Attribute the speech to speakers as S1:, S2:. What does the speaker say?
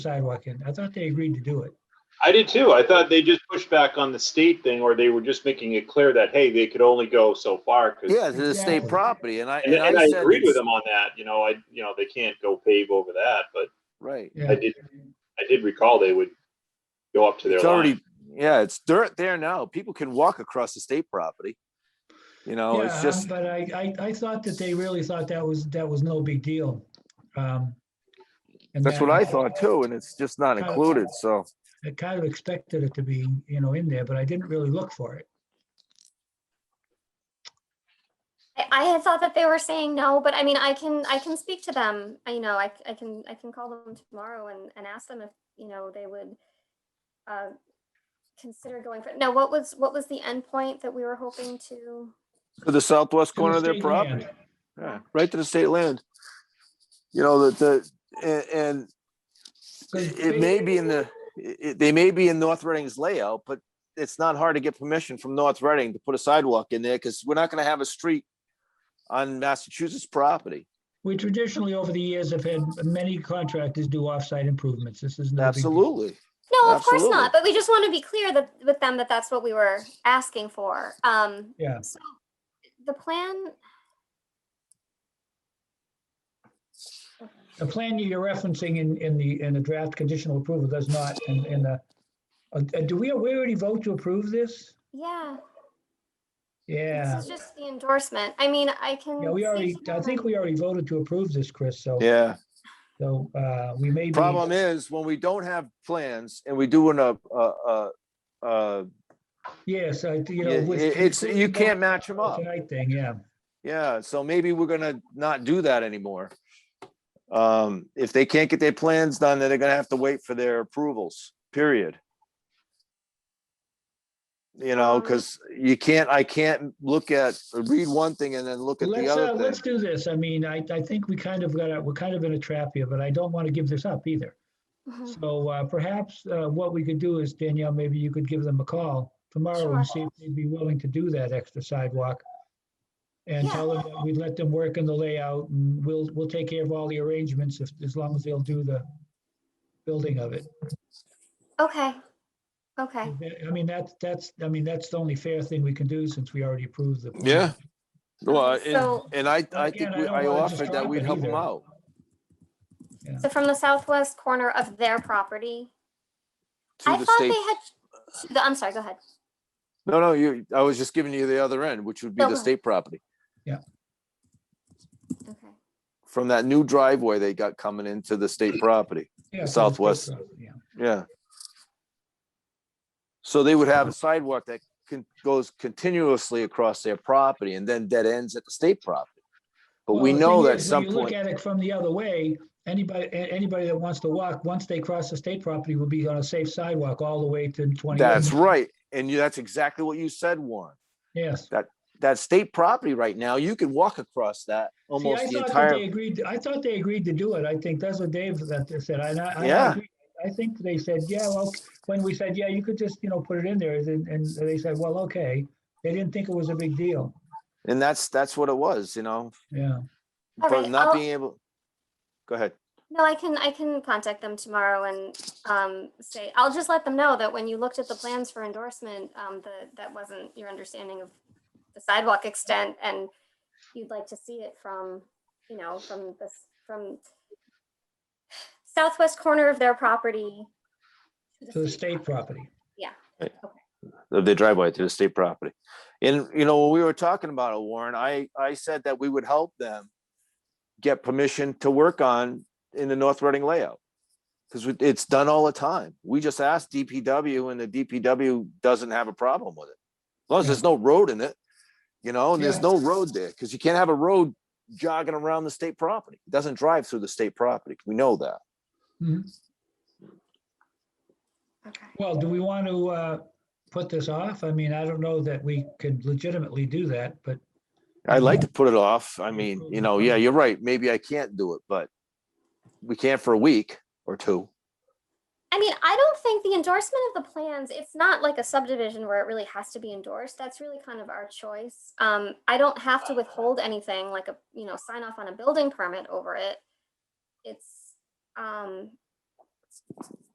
S1: sidewalk in. I thought they agreed to do it.
S2: I did too. I thought they just pushed back on the state thing, or they were just making it clear that, hey, they could only go so far. 'cause-
S3: Yeah, this is state
S1: Exactly.
S3: property and I,
S2: And, and
S3: and
S2: I
S3: I said,
S2: agreed with
S3: it's-
S2: them on that, you know, I, you know, they can't go pave over that, but
S3: right.
S1: Yeah.
S2: I did, I did recall they would go up to their
S3: It's
S2: line.
S3: already, yeah, it's dirt there now. People can walk across the state property. You know, it's
S1: Yeah, um,
S3: just,
S1: But I, I, I thought that they really thought that was, that was no big deal. Um, and
S3: that's
S1: that-
S3: what I thought too, and it's just not
S1: Kind of-
S3: included, so.
S1: I kind of expected it to be, you know, in there, but I didn't really look for it.
S4: I, I had thought that they were saying no, but I mean, I can, I can speak to them. I, you know, I, c- I can, I can call them tomorrow and, and ask them if, you know, they would uh, consider going for, now, what was, what was the endpoint that we were hoping to?
S3: To the southwest corner of their
S1: State
S3: property.
S1: land.
S3: Yeah, right to the state land. You know, the, the, a- and,
S1: Good.
S3: it it may be in the, it, it- they may be in North Reading's layout, but it's not hard to get permission from North Reading to put a sidewalk in there, because we're not gonna have a street on Massachusetts property.
S1: We traditionally, over the years, have had many contractors do off-site improvements. This is. no big deal.
S3: Absolutely.
S4: No, of course
S3: Absolutely.
S4: not, but we just want to be clear that, with them, that that's what we were asking for. Um,
S1: Yeah,
S4: so the plan,
S1: the plan you're referencing in, in the, in the draft conditional approval does not, in, in the, uh, uh, do we, we already vote to approve this?
S4: yeah,
S1: Yeah,
S4: this is just the endorsement. I mean, I can.
S1: yeah, we
S4: speak
S1: already,
S4: to
S1: I
S4: them
S1: think
S4: and-
S1: we already voted to approve this, Chris, so.
S3: Yeah.
S1: So uh, we may be.
S3: Problem is, when we don't have plans and we do an, uh, uh, uh, uh,
S1: Yes, I, you know. with-
S3: it- it's, you can't match them up.
S1: Tonight thing, yeah.
S3: Yeah, so maybe we're gonna not do that anymore. Um, if they can't get their plans done, then they're gonna have to wait for their approvals, period. You know,
S4: Um,
S3: because you can't, I can't look at, read one thing and then look at the
S1: Let's, uh,
S3: other
S1: let's
S3: thing.
S1: do this. I mean, I, I think we kind of got, a- we're kind of in a trap here, but I don't want to give this up either.
S4: Mhm.
S1: So uh, perhaps uh, what we could do is Danielle, maybe you could give them a call tomorrow and
S4: Sure.
S1: see if they'd be willing to do that extra sidewalk. And
S4: Yeah.
S1: tell them that we'd let them work in the layout and we'll, we'll take care of all the arrangements if, as long as they'll do the building of it.
S4: Okay, okay.
S1: I mean, that's, that's, I mean, that's the only fair thing we can do since we already approved the.
S3: Yeah. Well,
S4: So-
S3: and, and I, I
S1: Again,
S3: think
S1: I
S3: we-
S1: don't
S3: I
S1: wanna
S3: offered
S1: disrupt
S3: that we'd
S1: it
S3: help them
S1: either.
S3: out.
S4: So from the southwest corner of their property?
S3: to
S4: I
S3: the
S4: thought they
S3: state.
S4: had, to the- I'm sorry, go ahead.
S3: No, no, you, I was just giving you the other end, which would be the
S4: Okay.
S3: state property.
S4: Okay.
S3: From that new driveway they got coming into the state property.
S1: Yeah, for the state
S3: Southwest.
S1: property, yeah.
S3: Yeah. So they would have a sidewalk that can, goes continuously across their property and then dead ends at the state property. But
S1: Well,
S3: we
S1: the
S3: know
S1: thing
S3: that
S1: is,
S3: some
S1: When you look
S3: point,
S1: at it from the other way, anybody, a- anybody that wants to walk, once they cross the state property, will be on a safe sidewalk all the way to 20.
S3: that's right. And you, that's exactly what you said, Warren.
S1: Yes.
S3: That state property right now, you can walk across that
S1: See, I
S3: almost the
S1: thought that they
S3: entire,
S1: agreed, I thought they agreed to do it. I think that's what Dave that they said. I- I- I
S3: Yeah.
S1: agree. I think they said, yeah, well, when we said, yeah, you could just, you know, put it in there, and, and they said, well, okay. They didn't think it was a big deal.
S3: and that's, that's what it was, you know,
S1: Yeah.
S4: All
S3: but
S4: right,
S3: not
S4: I'll-
S3: being able. Go ahead.
S4: No, I can, I can contact them tomorrow and um, say, I'll just let them know that when you looked at the plans for endorsement, um, that, that wasn't your understanding of the sidewalk extent and you'd like to see it from, you know, from this, from southwest corner of their property.
S1: To the state property.
S3: of the driveway to the state property. And, you know, when we were talking about it, Warren, I, I said that we would help them get permission to work on in the North Reading layout. Cause we- it's done all the time. We just asked DPW and the DPW doesn't have a problem with it. As long as there's no road in it, you know, and there's
S1: Yeah.
S3: no road there, cause you can't have a road jogging around the state property. It doesn't drive through the state property. We know that.
S4: Okay.
S1: Well, do we want to uh, put this off? I mean, I don't know that we could legitimately do that, but
S3: I'd like
S1: Mhm.
S3: to put it off. I mean, you know, yeah, you're right. Maybe I can't do it, but we can for a week or two.
S4: I mean, I don't think the endorsement of the plans, it's not like a subdivision where it really has to be endorsed. That's really kind of our choice. Um, I don't have to withhold anything like a, you know, sign off on a building permit over it. It's, um,